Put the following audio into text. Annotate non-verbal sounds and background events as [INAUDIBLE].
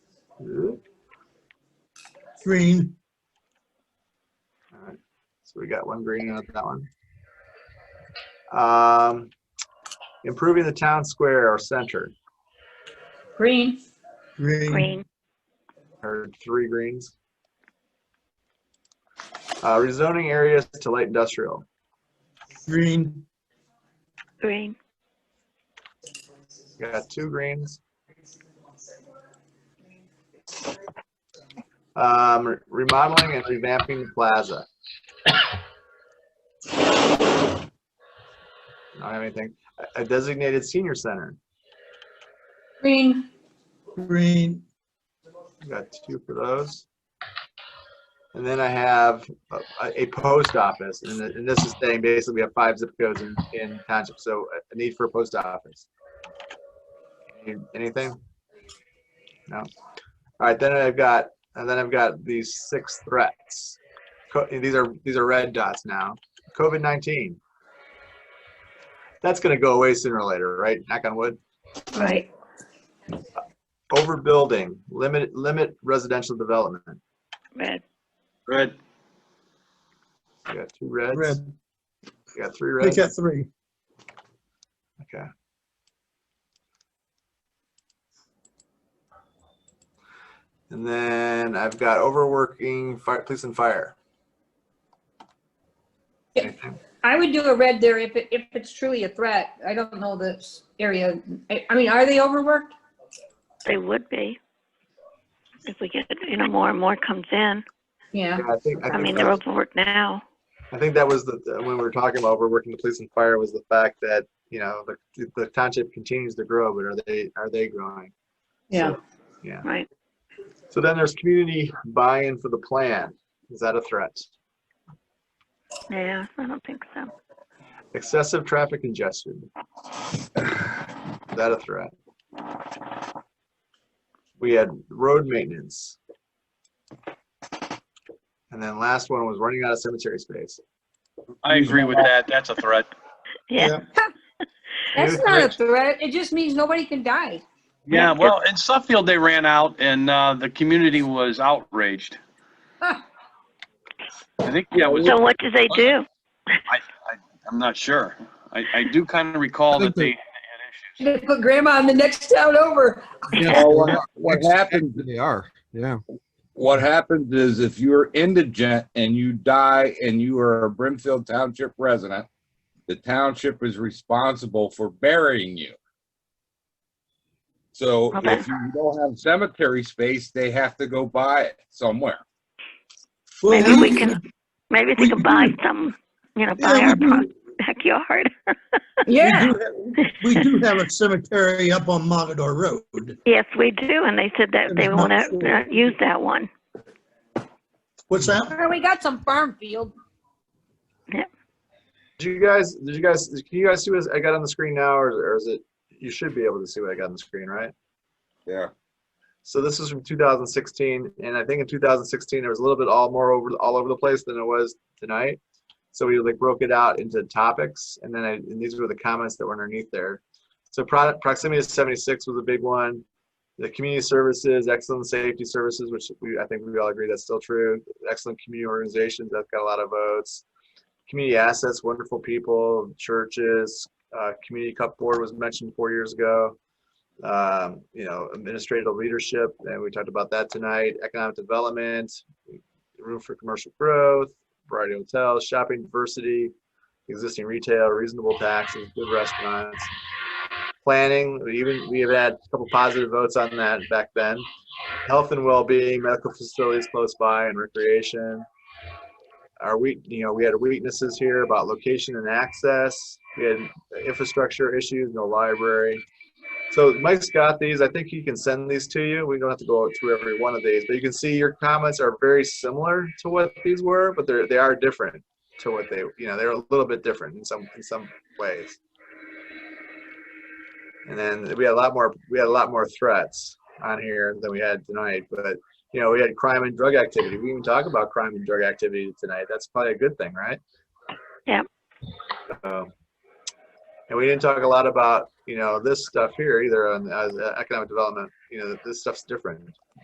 Green. Alright, So we got one green on that one. Um, improving the town square or center, Green. Green. green, heard three greens. Uh, rezoning areas to light industrial, Green. green, got two greens. Um, re- remodeling and revamping plaza. [COUGHS] Don't have anything. A- A designated senior center, Green. Green. Got two for those. And then I have a- a, a post office, and, th- and this is saying basically we have five zip codes in, in township, so a- a need for a post office. Any- Anything? No. All right, then I've got, and then I've got these six threats. Co- These are, these are red dots now. COVID-19. That's gonna go away sooner or later, right? Knock on wood. Right. Overbuilding, limit, limit residential development. red, red, You got two reds. Red. You got three Make reds. that three. Okay. And then I've got overworking, fire, police and fire. Yeah. Anything? I would do a red there if it, if it's truly a threat. I don't know this area. I, I mean, are they overworked? they would be. If we get, you know, more and more comes in, Yeah. Yeah, I think, I I mean, think, they're that, overworked now. I think that was the, the- when we were talking about overworking the police and fire was the fact that, you know, the, the township continues to grow, but are they, are they growing? Yeah. So, Yeah. Right. So then there's community buy-in for the plan. Is that a threat? Yeah, I don't think so. Excessive traffic congestion. Is that a threat? We had road maintenance. And then last one was running out of cemetery space. I agree with that, that's a threat. Yeah, That's Maybe not a threats. threat. It just means nobody can die. [LAUGHS] Yeah, well, in Suffield, they ran out and, uh, the community was outraged. Huh. I think, yeah, it was, so what do they do? I'm not sure. I, I do kind of recall that they had issues. They put grandma in the next town [LAUGHS] over. Well, what- What Next- happens, They are, yeah. what happens is if you're indigent and you die and you are a Brimfield Township resident, the township is responsible for burying you. So Okay. if you don't have cemetery space, they have to go buy it somewhere. [LAUGHS] Well, Maybe we can, maybe they can buy some, you know, buy Yeah, our we pro- [LAUGHS] do- backyard. we Yeah. do have- We do have a cemetery up on Mogador Road. Yes, we do, and they said that they won't uh, not use that one. What's that? Well, We got some farm field. Did you guys, did you guys, can you guys see what I got on the screen now or, or is it, you should be able to see what I got on the screen, right? Yeah. So this is from 2016 and I think in 2016, there was a little bit all more over, all over the place than it was tonight. So we like broke it out into topics and then I, and these were the comments that were underneath there. So pro- proximity to 76 was a big one. The community services, excellent safety services, which we, I think we all agree that's still true. Excellent community organizations, that's got a lot of votes. Community assets, wonderful people, churches, uh, community cup board was mentioned four years ago. Um, you know, administrative leadership, and we talked about that tonight. Economic development, room for commercial growth, variety of hotels, shopping diversity, existing retail, reasonable taxes, good restaurants. Planning, we even, we have had a couple positive votes on that back then. Health and well-being, medical facilities close by and recreation. Our we, you know, we had weaknesses here about location and access. We had infrastructure issues, no library. So Mike's got these. I think he can send these to you. We don't have to go through every one of these, but you can see your comments are very similar to what these were, but they're, they are different to what they, you know, they're a little bit different in some, in some ways. And then we had a lot more, we had a lot more threats on here than we had tonight, but, you know, we had crime and drug activity. We even talk about crime and drug activity tonight. That's probably a good thing, right? Um, Yep. So, and we didn't talk a lot uh, about, you know, this stuff here either on, as economic development, you know, this stuff's different.